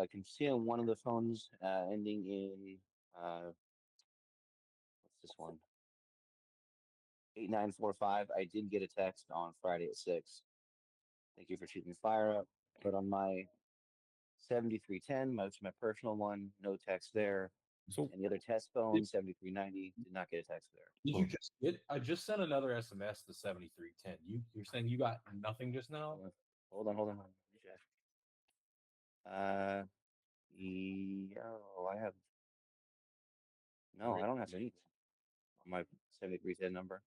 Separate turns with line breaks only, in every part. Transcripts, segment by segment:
I can see on one of the phones uh, ending in uh, what's this one? Eight nine four five. I did get a text on Friday at six. Thank you for shooting the fire up. But on my seventy three ten, my my personal one, no text there.
So
And the other test phone seventy three ninety did not get a text there.
did you just get? I just sent another SMS to seventy three ten. You you're saying you got nothing just now?
Hold on, hold on. hold on, let me check. Uh, ye- oh, I have. No, I don't have anything on my seventy-three ten number.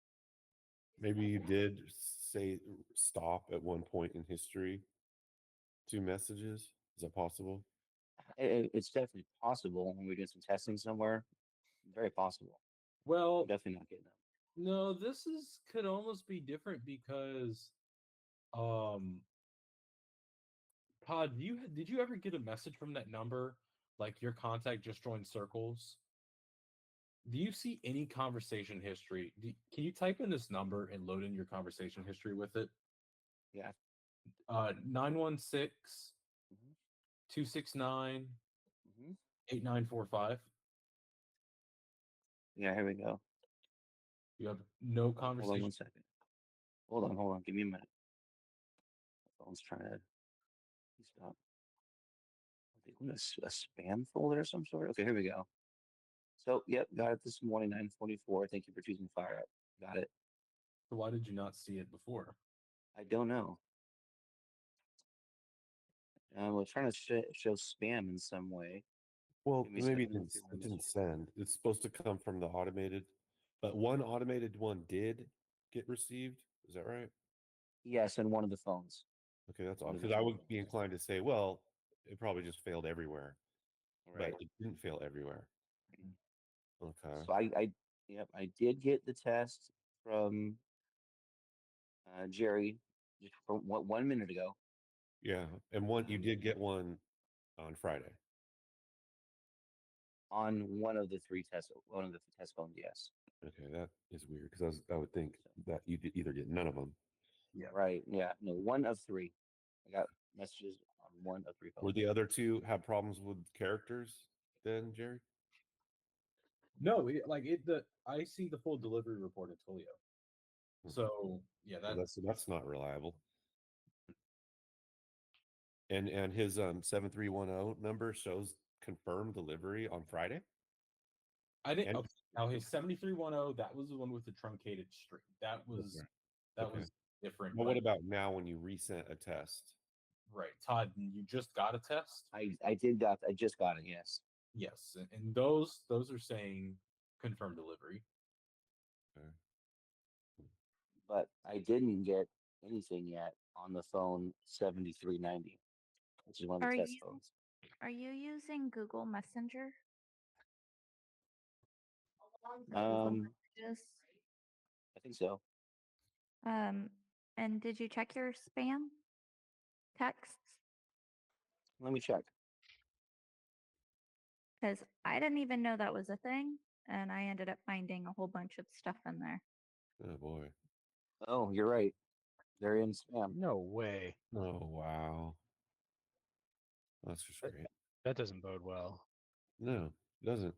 Maybe you did say stop at one point in history. Two messages. Is that possible?
I- I- it's definitely possible when we do some testing somewhere. Very possible.
Well,
I'm definitely not getting them.
No, this is could almost be different because, um, Todd, you ha- did you ever get a message from that number? Like your contact just joined circles. Do you see any conversation history? Do, can you type in this number and load in your conversation history with it?
Yeah.
Uh, 916
Mhm.
269
Mhm.
8945.
Mm-hmm. Yeah, here we go.
You have no
Hold on one
conversation.
second. Hold on, hold on. Give me a minute. My phone's trying to stop. I think we're in a, s- a spam folder of some sort. Okay, here we go. So, yep, got it this morning, 944. Thank you for choosing Fire Up. Got it.
So why did you not see it before?
I don't know. Uh, we're trying to sh- show spam in some way.
Well,
Give me a
maybe it
second, let me
didn't,
see
s-
when
it
this
didn't
was.
send. It's supposed to come from the automated, but one automated one did get received. Is that right?
Yes, on one of the phones.
Okay, that's
One
odd.
of
Because
the
I
two
would
phones.
be inclined to say, well, it probably just failed everywhere,
Right.
but it didn't fail everywhere.
Mhm.
Okay.
So I, I, yep, I did get the test from uh, Jerry just from one, one minute ago.
Yeah, and one you
Um,
did get one on Friday.
on one of the three test one of the test phones. Yes,
Okay, that is weird because I, was- I would think that you did either get none of them.
yeah, right, yeah, no, one of three. I got messages on one of three phones.
Were the other two have problems with characters then, Jerry?
No, it, like it. The I see the full delivery report at Twilio.
Hmm.
So yeah,
Well,
that
that's that's not reliable. And and his um seven three one zero number shows confirmed delivery on Friday.
I didn't.
and-
Okay, now his seventy three one zero. That was the one with the truncated string. That was
right.
that
Okay.
was different.
But what
but-
about now when you resent a test?
right, Todd? You just got a test.
I I did got I just got it. Yes,
Yes, and, and those those are saying confirmed delivery.
but I didn't get anything yet on the phone seventy three ninety, which is one of the
Are
test
you-
phones.
Are you using Google Messenger? Or Google
Um,
Messages?
I think so.
Um, and did you check your spam texts?
Let me check.
Because I didn't even know that was a thing, and I ended up finding a whole bunch of stuff in there.
Oh boy.
Oh, you're right. They're in spam.
No way.
Oh wow. That's just
Uh,
great.
That doesn't bode well.
No, it doesn't.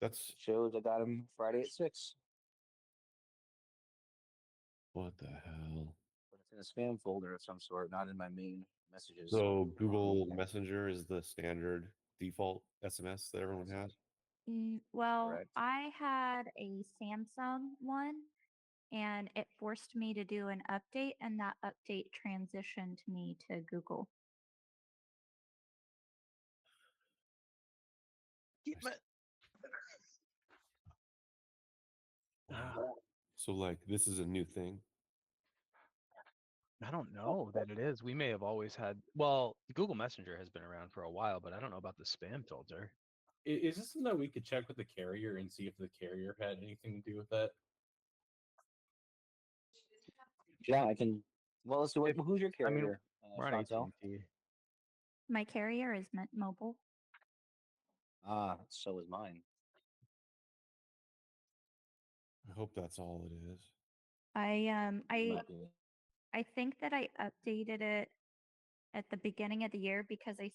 That's
Shows I got them Friday at six,
what the hell.
but it's in a spam folder of some sort, not in my main messages.
So Google Messenger is the standard default SMS that everyone has.
Mm, Well,
Correct.
I had a Samsung one, and it forced me to do an update, and that update transitioned me to Google.
I s-
Ah,
Wow. So like this is a new thing.
I don't know that it is. We may have always had. Well, Google Messenger has been around for a while, but I don't know about the spam filter.
I- Is, this something that we could check with the carrier and see if the carrier had anything to do with that?
Yeah, I can. Well, so wait, who's your
I mean,
carrier?
We're
uh,
on
Chantel?
AT&T.
My carrier is Mint Mobile.
Ah, so is mine.
I hope that's all it is.
I um I
Might be.
I think that I updated it at the beginning of the year because I